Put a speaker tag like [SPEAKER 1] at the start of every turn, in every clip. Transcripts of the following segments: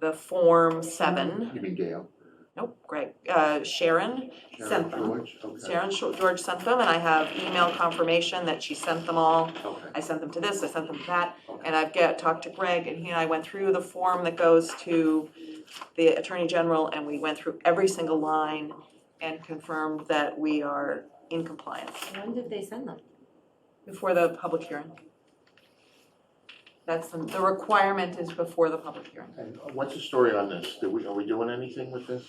[SPEAKER 1] the Form Seven.
[SPEAKER 2] You mean Gail?
[SPEAKER 1] Nope, Greg, uh, Sharon
[SPEAKER 2] Sharon
[SPEAKER 1] sent them.
[SPEAKER 2] George? Okay,
[SPEAKER 1] Sharon Sho- George sent them, and I have email confirmation that she sent them all.
[SPEAKER 2] okay.
[SPEAKER 1] I sent them to this, I sent them to that, and I've get, talked to Greg, and he and I went through the form that goes to the Attorney General, and we went through every single line and confirmed that we are in compliance
[SPEAKER 3] When did they send them?
[SPEAKER 1] before the public hearing. That's, the the requirement is before the public hearing.
[SPEAKER 2] And what's the story on this? Do we, are we doing anything with this?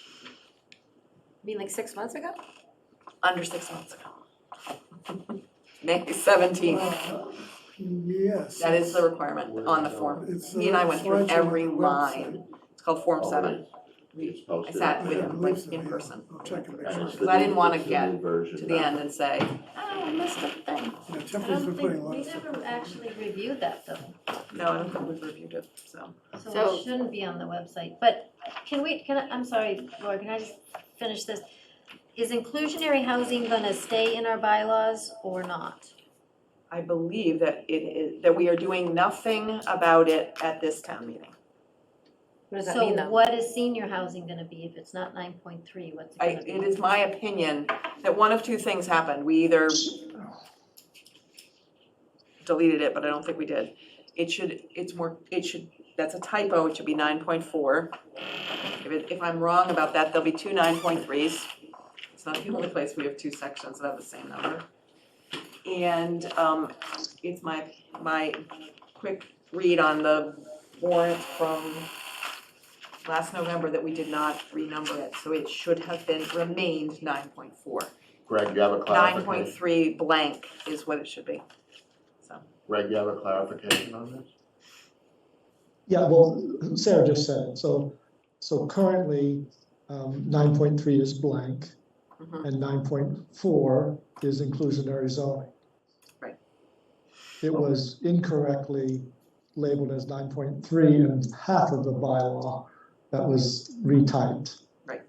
[SPEAKER 3] I mean, like six months ago?
[SPEAKER 1] under six months ago. May seventeenth,
[SPEAKER 4] Uh, Yes.
[SPEAKER 1] that is the requirement on the form.
[SPEAKER 4] It's
[SPEAKER 1] He and I went through
[SPEAKER 4] flagged on
[SPEAKER 1] every
[SPEAKER 4] the
[SPEAKER 1] line. It's called Form
[SPEAKER 2] Oh,
[SPEAKER 1] Seven.
[SPEAKER 2] it- It's
[SPEAKER 1] We- I
[SPEAKER 2] posted.
[SPEAKER 1] sat
[SPEAKER 4] website.
[SPEAKER 1] with
[SPEAKER 4] I
[SPEAKER 1] him,
[SPEAKER 4] believe
[SPEAKER 1] like,
[SPEAKER 4] so,
[SPEAKER 1] in
[SPEAKER 4] yeah.
[SPEAKER 1] person.
[SPEAKER 4] I'll check and make
[SPEAKER 2] And
[SPEAKER 4] sure.
[SPEAKER 2] it's the
[SPEAKER 1] So I didn't
[SPEAKER 2] new-
[SPEAKER 1] wanna
[SPEAKER 2] it's the
[SPEAKER 1] get
[SPEAKER 2] new version,
[SPEAKER 1] To the
[SPEAKER 2] not-
[SPEAKER 1] end and say, oh, I missed a thing.
[SPEAKER 4] Yeah,
[SPEAKER 3] I
[SPEAKER 4] Tiffany's
[SPEAKER 3] don't
[SPEAKER 4] been putting a
[SPEAKER 3] think,
[SPEAKER 4] lot
[SPEAKER 3] we
[SPEAKER 4] of stuff.
[SPEAKER 3] never actually reviewed that though,
[SPEAKER 1] No, I don't think we've reviewed it, so.
[SPEAKER 3] so
[SPEAKER 5] So-
[SPEAKER 3] it shouldn't be on the website, but can we, can I, I'm sorry, Laura, can I just finish this? Is inclusionary housing gonna stay in our bylaws or not?
[SPEAKER 1] I believe that it is, that we are doing nothing about it at this town meeting.
[SPEAKER 6] What does that mean
[SPEAKER 3] So
[SPEAKER 6] though?
[SPEAKER 3] what is senior housing gonna be if it's not nine point three, what's it
[SPEAKER 1] I,
[SPEAKER 3] gonna be?
[SPEAKER 1] it is my opinion that one of two things happened. We either deleted it, but I don't think we did. It should, it's more, it should, that's a typo, it should be nine point four. If it, if I'm wrong about that, there'll be two nine point threes. It's not the only place we have two sections that have the same number. And, um, it's my, my quick read on the warrant from last November that we did not renumber it, so it should have been, remained nine point four.
[SPEAKER 2] Greg, you have a
[SPEAKER 1] Nine point
[SPEAKER 2] clarification?
[SPEAKER 1] three blank is what it should be.
[SPEAKER 2] Greg, you have a clarification on this?
[SPEAKER 7] Yeah, well, Sarah just said it, so, so currently, um, nine point three is blank,
[SPEAKER 1] Mhm.
[SPEAKER 7] and nine point four is inclusionary zoning.
[SPEAKER 1] Right.
[SPEAKER 7] It was incorrectly labeled as nine point three and half of the bylaw that was retyped.
[SPEAKER 1] Right.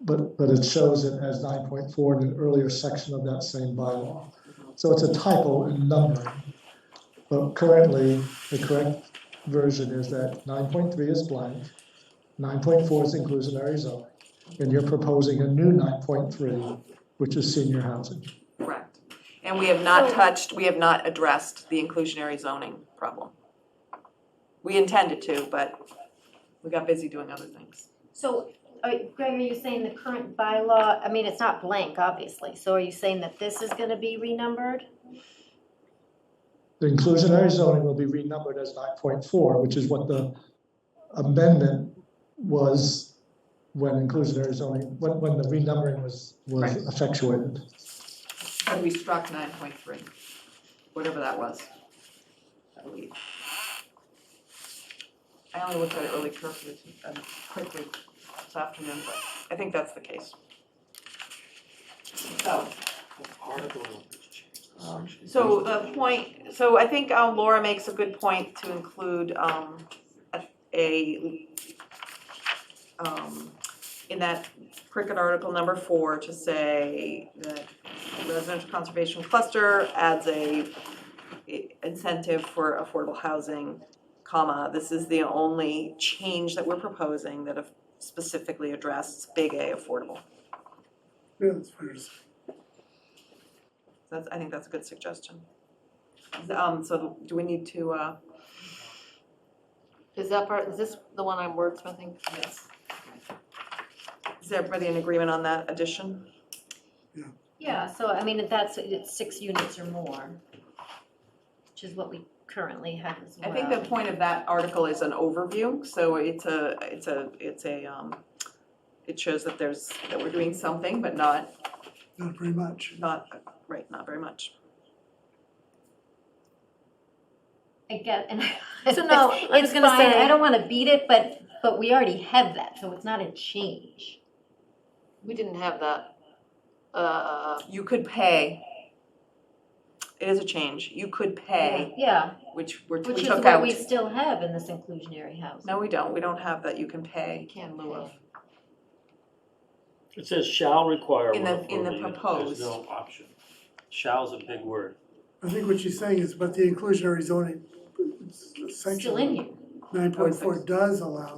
[SPEAKER 7] But, but it shows it as nine point four in an earlier section of that same bylaw.
[SPEAKER 1] Mm-hmm.
[SPEAKER 7] So it's a typo in numbering. But currently, the correct version is that nine point three is blank, nine point four is inclusionary zoning, and you're proposing a new nine point three, which is senior housing.
[SPEAKER 1] Correct. And we have not
[SPEAKER 3] So-
[SPEAKER 1] touched, we have not addressed the inclusionary zoning problem. We intended to, but we got busy doing other things.
[SPEAKER 3] So, are, Greg, are you saying the current bylaw, I mean, it's not blank, obviously, so are you saying that this is gonna be renumbered?
[SPEAKER 7] The inclusionary zoning will be renumbered as nine point four, which is what the amendment was when inclusionary zoning, when, when the renumbering was,
[SPEAKER 1] Right.
[SPEAKER 7] was effectuated.
[SPEAKER 1] And we struck nine point three, whatever that was. I believe. I only looked at it really carefully, um, quickly this afternoon, but I think that's the case. So,
[SPEAKER 2] Um,
[SPEAKER 1] So the point, so I think um, Laura makes a good point to include um, a- a, um, in that cricket article number four to say that residential conservation cluster adds a incentive for affordable housing, comma, this is the only change that we're proposing that specifically addresses big A affordable.
[SPEAKER 4] Yeah, that's what it is.
[SPEAKER 1] That's, I think that's a good suggestion. Um, so do we need to, uh,
[SPEAKER 5] Is that part, is this the one I'm wordsmithing?
[SPEAKER 1] yes. Is everybody in agreement on that addition?
[SPEAKER 3] Yeah, so I mean, if that's, it's six units or more, which is what we currently have as
[SPEAKER 1] I
[SPEAKER 3] well.
[SPEAKER 1] think the point of that article is an overview, so it's a, it's a, it's a, um, it shows that there's, that we're doing something, but not,
[SPEAKER 4] Not very much.
[SPEAKER 1] not, right, not very much.
[SPEAKER 3] I get, and
[SPEAKER 5] So no,
[SPEAKER 3] I was gonna say, I don't wanna beat it, but, but we already have that, so it's not a change.
[SPEAKER 5] We didn't have that. Uh,
[SPEAKER 1] You could pay. It is a change. You could pay,
[SPEAKER 3] Yeah,
[SPEAKER 1] which we're, we
[SPEAKER 3] which is
[SPEAKER 1] took
[SPEAKER 3] what
[SPEAKER 1] out.
[SPEAKER 3] we still have in this inclusionary housing.
[SPEAKER 1] No, we don't. We don't have that. You can pay
[SPEAKER 5] can lieu of.
[SPEAKER 8] It says shall require
[SPEAKER 1] In
[SPEAKER 8] one
[SPEAKER 1] the- in the
[SPEAKER 8] affordable unit.
[SPEAKER 1] proposed.
[SPEAKER 8] There's no option. Shall's a big word.
[SPEAKER 4] I think what she's saying is, but the inclusionary zoning
[SPEAKER 3] Still in
[SPEAKER 4] section
[SPEAKER 3] here.
[SPEAKER 4] nine point four does allow